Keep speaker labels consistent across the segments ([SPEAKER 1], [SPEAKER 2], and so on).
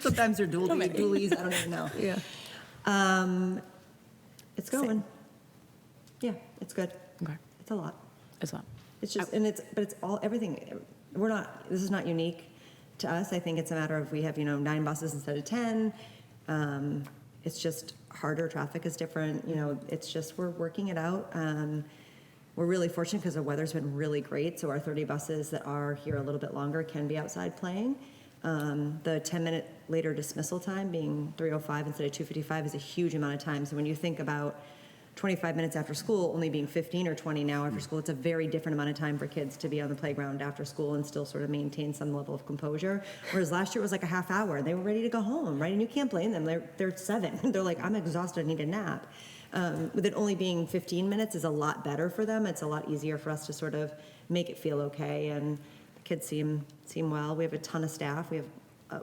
[SPEAKER 1] Sometimes they're dually, dualies, I don't even know.
[SPEAKER 2] Yeah.
[SPEAKER 1] Um, It's going. Yeah, it's good.
[SPEAKER 2] Okay.
[SPEAKER 1] It's a lot.
[SPEAKER 2] As well.
[SPEAKER 1] It's just, and it's, but it's all, everything, we're not, this is not unique to us. I think it's a matter of we have, you know, nine buses instead of 10. Um, It's just harder, traffic is different, you know, it's just, we're working it out. Um, We're really fortunate because the weather's been really great, so our 30 buses that are here a little bit longer can be outside playing. Um, The 10-minute later dismissal time being 3:05 instead of 2:55 is a huge amount of time. So when you think about 25 minutes after school only being 15 or 20 now after school it's a very different amount of time for kids to be on the playground after school and still sort of maintain some level of composure whereas last year it was like a half hour and they were ready to go home right and you can't blame them they're, they're seven they're like i'm exhausted i need a nap um, with it only being 15 minutes is a lot better for them it's a lot easier for us to sort of make it feel okay and the kids seem seem well we have a ton of staff we have a,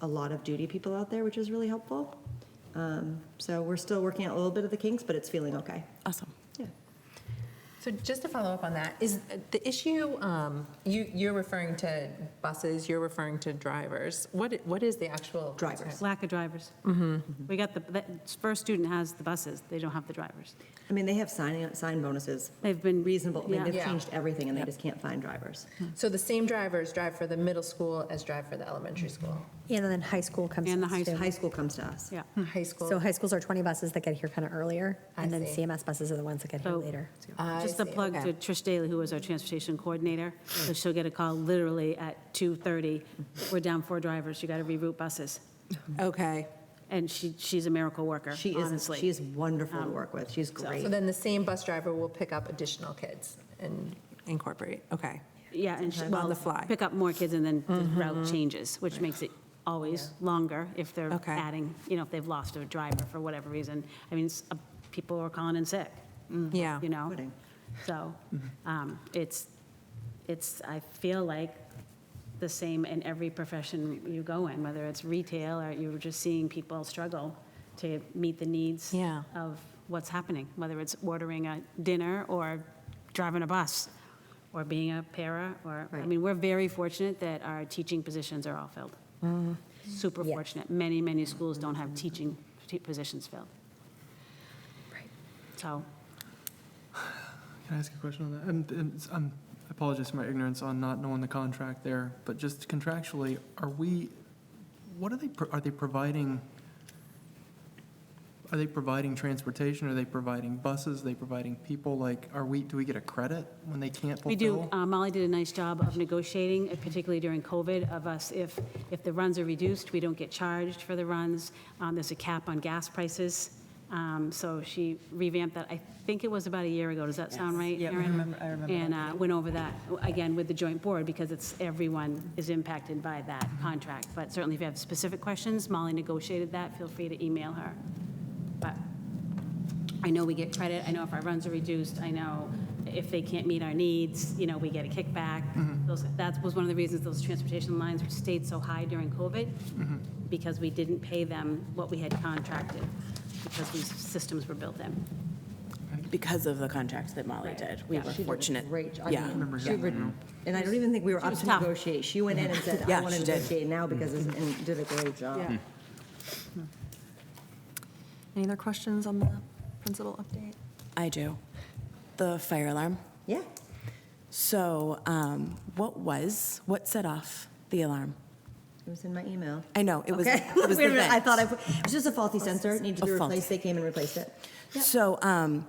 [SPEAKER 1] a lot of duty people out there which is really helpful um, So we're still working out a little bit of the kinks, but it's feeling okay.
[SPEAKER 2] Awesome.
[SPEAKER 1] Yeah.
[SPEAKER 3] So just to follow up on that, is the issue, um, you, you're referring to buses, you're referring to drivers. What, what is the actual?
[SPEAKER 1] Drivers.
[SPEAKER 4] Lack of drivers.
[SPEAKER 1] Mm-hmm.
[SPEAKER 4] We got the, the first student has the buses, they don't have the drivers.
[SPEAKER 1] I mean, they have sign, sign bonuses.
[SPEAKER 4] They've been-
[SPEAKER 1] Reasonable, I mean,
[SPEAKER 4] yeah.
[SPEAKER 1] they've
[SPEAKER 3] Yeah.
[SPEAKER 1] changed everything and they just can't find drivers.
[SPEAKER 3] So the same drivers drive for the middle school as drive for the elementary school?
[SPEAKER 5] And then high school comes.
[SPEAKER 4] And the
[SPEAKER 5] to
[SPEAKER 4] high
[SPEAKER 5] us, too.
[SPEAKER 1] High school comes to us.
[SPEAKER 4] Yeah.
[SPEAKER 3] High school?
[SPEAKER 5] So high schools are 20 buses that get here kind of earlier,
[SPEAKER 3] I
[SPEAKER 5] and then
[SPEAKER 3] see.
[SPEAKER 5] CMS buses are the ones that get here
[SPEAKER 4] So-
[SPEAKER 5] later.
[SPEAKER 3] I
[SPEAKER 4] Just a
[SPEAKER 3] see,
[SPEAKER 4] plug
[SPEAKER 3] okay.
[SPEAKER 4] to Trish Daly, who is our transportation coordinator.
[SPEAKER 1] Mm.
[SPEAKER 4] So she'll get a call literally at 2:30.
[SPEAKER 1] Mm-hmm.
[SPEAKER 4] We're down four drivers, you got to reroute buses.
[SPEAKER 3] Okay.
[SPEAKER 4] And she, she's a miracle worker,
[SPEAKER 1] She is,
[SPEAKER 4] honestly.
[SPEAKER 1] she is wonderful
[SPEAKER 2] Um,
[SPEAKER 1] to work with. She's
[SPEAKER 3] So
[SPEAKER 1] great.
[SPEAKER 3] then the same bus driver will pick up additional kids and incorporate, okay.
[SPEAKER 4] Yeah, and she,
[SPEAKER 3] Sometimes. On
[SPEAKER 4] well,
[SPEAKER 3] the fly.
[SPEAKER 4] pick up more kids and then the route changes, which makes it always longer if they're
[SPEAKER 3] Okay.
[SPEAKER 4] adding, you know, if they've lost a driver for whatever reason. I mean, s- uh, people are calling in sick. mm,
[SPEAKER 3] Yeah.
[SPEAKER 4] you know?
[SPEAKER 1] Pudding.
[SPEAKER 4] So um, it's, it's, I feel like the same in every profession you go in, whether it's retail or you're just seeing people struggle to meet the needs
[SPEAKER 3] Yeah.
[SPEAKER 4] of what's happening, whether it's ordering a dinner or driving a bus or being a para or, I
[SPEAKER 1] Right.
[SPEAKER 4] mean, we're very fortunate that our teaching positions are all filled. Super
[SPEAKER 5] Yeah.
[SPEAKER 4] fortunate. Many, many schools don't have teaching t- positions filled.
[SPEAKER 5] Right.
[SPEAKER 4] So
[SPEAKER 6] Can I ask a question on that? I'm- I'm- I'm- I apologize for my ignorance on not knowing the contract there, but just contractually, are we, what are they, pro- are they providing, are they providing transportation? Are they providing buses? Are they providing people? Like, are we, do we get a credit when they can't fulfill?
[SPEAKER 4] We do. Uh, Molly did a nice job of negotiating, uh, particularly during COVID, of us, if, if the runs are reduced, we don't get charged for the runs. Um, There's a cap on gas prices. Um, So she revamped that. I think it was about a year ago. Does that sound right,
[SPEAKER 7] Yeah, I
[SPEAKER 4] Erin?
[SPEAKER 7] remember- I remember
[SPEAKER 4] And uh, went over that, again, with the joint board, because it's, everyone is impacted by that
[SPEAKER 7] Mm-hmm.
[SPEAKER 4] contract. But certainly if you have specific questions, Molly negotiated that. Feel free to email her. But I know we get credit, I know if our runs are reduced, I know if they can't meet our needs, you know, we get a kickback. Those, that was one of the reasons those transportation lines stayed so high during COVID, because we didn't pay them what we had contracted, because these systems were built in.
[SPEAKER 2] Because of the contract that Molly did. We were
[SPEAKER 1] She did a
[SPEAKER 2] fortunate.
[SPEAKER 1] Great. job. I
[SPEAKER 2] Yeah. Mm-hmm.
[SPEAKER 1] mean, she would- And I don't even think we were up
[SPEAKER 4] was
[SPEAKER 1] to
[SPEAKER 4] tough.
[SPEAKER 1] negotiate. She went in and said, I
[SPEAKER 2] Yeah,
[SPEAKER 1] want to
[SPEAKER 2] she did. Mm-hmm.
[SPEAKER 1] negotiate now because, it's- and did a great job.
[SPEAKER 8] Any other questions on the principal update?
[SPEAKER 2] I do. The fire alarm.
[SPEAKER 1] Yeah.
[SPEAKER 2] So um, what was, what set off the alarm?
[SPEAKER 1] It was in my email.
[SPEAKER 2] I know, it was,
[SPEAKER 1] Okay.
[SPEAKER 2] it
[SPEAKER 1] Wait a
[SPEAKER 2] was the
[SPEAKER 1] minute, I
[SPEAKER 2] vent.
[SPEAKER 1] thought I, put- it was just a faulty sensor, needed to be
[SPEAKER 2] A faulty-
[SPEAKER 1] replaced. They came and replaced it.
[SPEAKER 2] So um,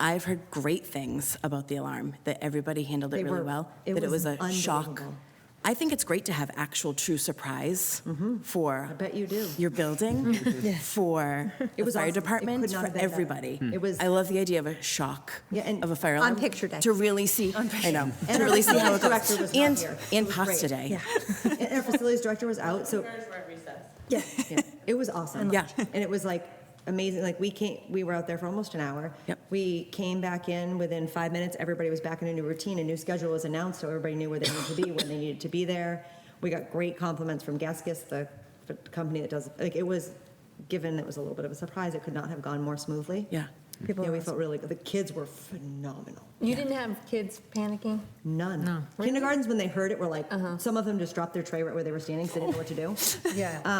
[SPEAKER 2] I've heard great things about the alarm, that everybody handled
[SPEAKER 1] They
[SPEAKER 2] it really
[SPEAKER 1] were-
[SPEAKER 2] well,
[SPEAKER 1] it
[SPEAKER 2] that it
[SPEAKER 1] was
[SPEAKER 2] was a shock.
[SPEAKER 1] unbelievable.
[SPEAKER 2] I think it's great to have actual true surprise for.
[SPEAKER 1] Mm-hmm. I bet you do.
[SPEAKER 2] Your building, for
[SPEAKER 1] It
[SPEAKER 2] the
[SPEAKER 1] was
[SPEAKER 2] fire
[SPEAKER 1] awesome. It could not
[SPEAKER 2] department,
[SPEAKER 1] have
[SPEAKER 2] for
[SPEAKER 1] been better.
[SPEAKER 2] everybody.
[SPEAKER 1] It was-
[SPEAKER 2] I love the idea of a shock
[SPEAKER 1] Yeah, and
[SPEAKER 2] of a fire
[SPEAKER 5] on
[SPEAKER 2] alarm.
[SPEAKER 5] picture day.
[SPEAKER 2] To really see, I know,
[SPEAKER 1] And
[SPEAKER 2] to
[SPEAKER 1] our
[SPEAKER 2] really see how
[SPEAKER 1] facilities
[SPEAKER 2] it
[SPEAKER 1] director
[SPEAKER 2] goes.
[SPEAKER 1] was not
[SPEAKER 2] And,
[SPEAKER 1] here. It
[SPEAKER 2] and
[SPEAKER 1] was great.
[SPEAKER 2] pasta day.
[SPEAKER 1] And our facilities director was out, so. Yeah, yeah. it was awesome.
[SPEAKER 2] Yeah.
[SPEAKER 1] And it was like amazing, like we came, we were out there for almost an hour.
[SPEAKER 2] Yep.
[SPEAKER 1] We came back in, within five minutes, everybody was back in a new routine, a new schedule was announced, so everybody knew where they needed to be, when they needed to be there. We got great compliments from Gaskis, the the company that does, like, it was, given it was a little bit of a surprise, it could not have gone more smoothly.
[SPEAKER 2] Yeah.
[SPEAKER 5] People
[SPEAKER 1] Yeah,
[SPEAKER 5] are
[SPEAKER 1] we felt really good. The kids were phenomenal.
[SPEAKER 3] You didn't have kids panicking?
[SPEAKER 1] None.
[SPEAKER 3] No. Uh-huh.
[SPEAKER 1] Kindergartens, when they heard it, were like, some of them just dropped their tray right where they were standing because they didn't know what to do. Um,
[SPEAKER 3] Yeah.